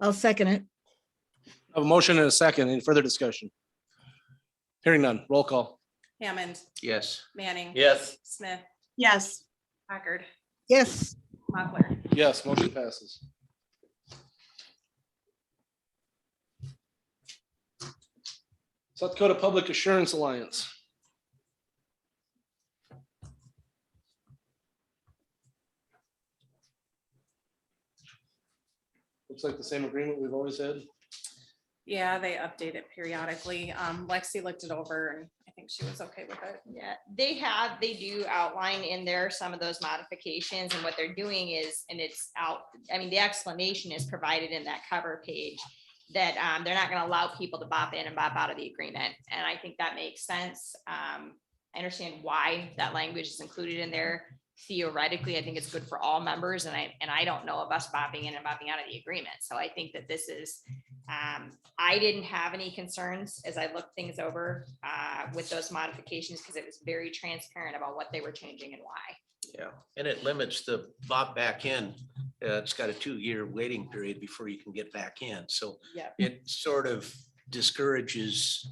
I'll second it. I have a motion and a second. Any further discussion? Hearing none. Roll call. Hammond, Yes. Manning. Yes. Smith, yes, Packard, Yes, Mochler. Yes, motion passes. South Dakota Public Assurance Alliance. Looks like the same agreement we've always had. Yeah, they update it periodically. Um, Lexi looked it over and I think she was okay with it. Yeah, they have, they do outline in there some of those modifications and what they're doing is, and it's out, I mean, the explanation is provided in that cover page. That um, they're not gonna allow people to bop in and bop out of the agreement, and I think that makes sense. Um, I understand why that language is included in there. Theoretically, I think it's good for all members and I, and I don't know of us bopping in and bopping out of the agreement, so I think that this is. Um, I didn't have any concerns as I looked things over uh, with those modifications because it was very transparent about what they were changing and why. Yeah, and it limits the bop back in. Uh, It's got a two-year waiting period before you can get back in. So Yep. it sort of discourages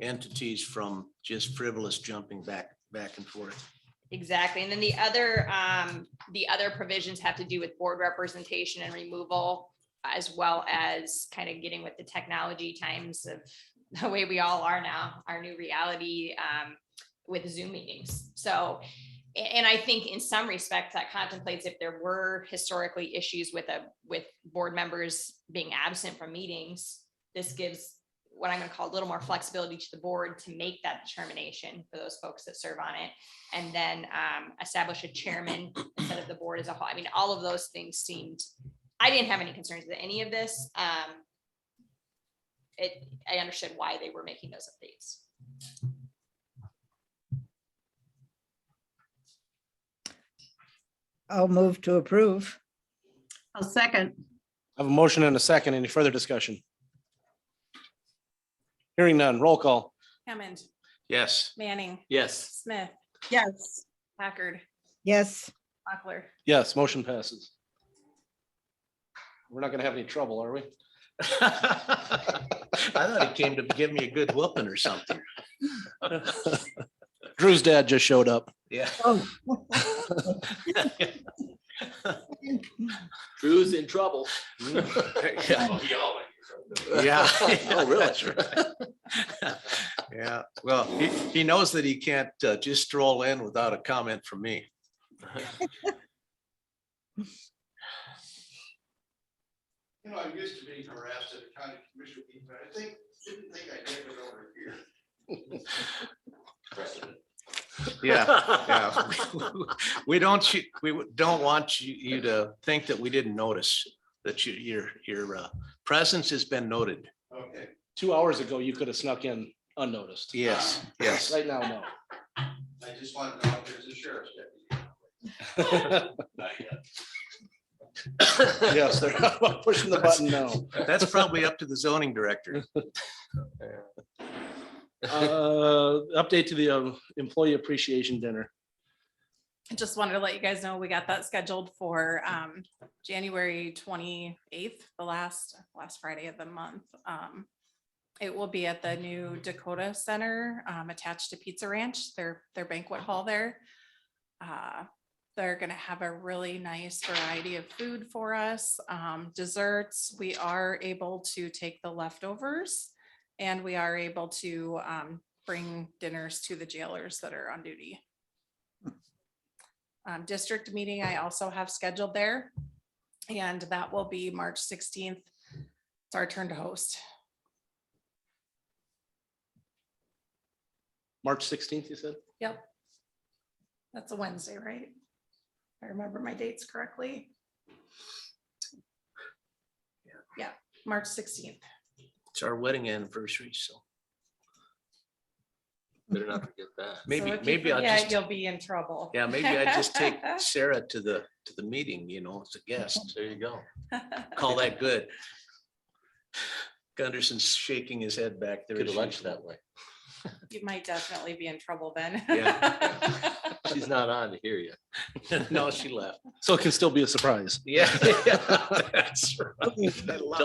entities from just frivolous jumping back, back and forth. Exactly. And then the other, um, the other provisions have to do with board representation and removal as well as kind of getting with the technology times of the way we all are now, our new reality, um, with Zoom meetings. So, a- and I think in some respects that contemplates if there were historically issues with a, with board members being absent from meetings, this gives what I'm gonna call a little more flexibility to the board to make that determination for those folks that serve on it and then um, establish a chairman instead of the board as a whole. I mean, all of those things seemed, I didn't have any concerns with any of this. Um, It, I understood why they were making those updates. I'll move to approve. I'll second, I have a motion and a second. Any further discussion? Hearing none. Roll call. Hammond, Yes. Manning, Yes. Smith, yes, Packard, Yes, Mochler. Yes, motion passes. We're not gonna have any trouble, are we? I thought he came to give me a good whooping or something. Drew's dad just showed up. Yeah. Oh. Drew's in trouble. Mm, Yeah. Yeah. Oh, really? That's right. Yeah, well, he, he knows that he can't uh, just stroll in without a comment from me. You know, I used to be harassed at a county commission meeting, but I think, didn't think I'd get it over here. Yeah, yeah. We don't, you- we don't want you, you to think that we didn't notice that you, your, your uh, presence has been noted. Okay. Two hours ago, you could have snuck in unnoticed. Yes, yes. Right now, no. I just wanted to know if there's a sheriff's deputy. Yes, they're pushing the button now. That's probably up to the zoning director. Uh, update to the um, employee appreciation dinner. I just wanted to let you guys know, we got that scheduled for um January twenty-eighth, the last, last Friday of the month. Um, It will be at the new Dakota Center um, attached to Pizza Ranch, their, their banquet hall there. Uh, They're gonna have a really nice variety of food for us, um, desserts. We are able to take the leftovers. And we are able to um, bring dinners to the jailers that are on duty. Um, district meeting I also have scheduled there. And that will be March sixteenth. It's our turn to host. March sixteenth, you said? Yep. That's a Wednesday, right? If I remember my dates correctly. Yeah, March sixteenth. It's our wedding anniversary, so Better not forget that. maybe, maybe I'll Yeah, just. you'll be in trouble. Yeah, maybe I just take Sarah to the, to the meeting, you know, as a guest. There you go. Call that good. Gunderson's shaking his head back there. Could as have lunch usual. that way. You might definitely be in trouble then. Yeah. She's not on to hear you. No, she left. So it can still be a surprise. Yeah. That's right. I love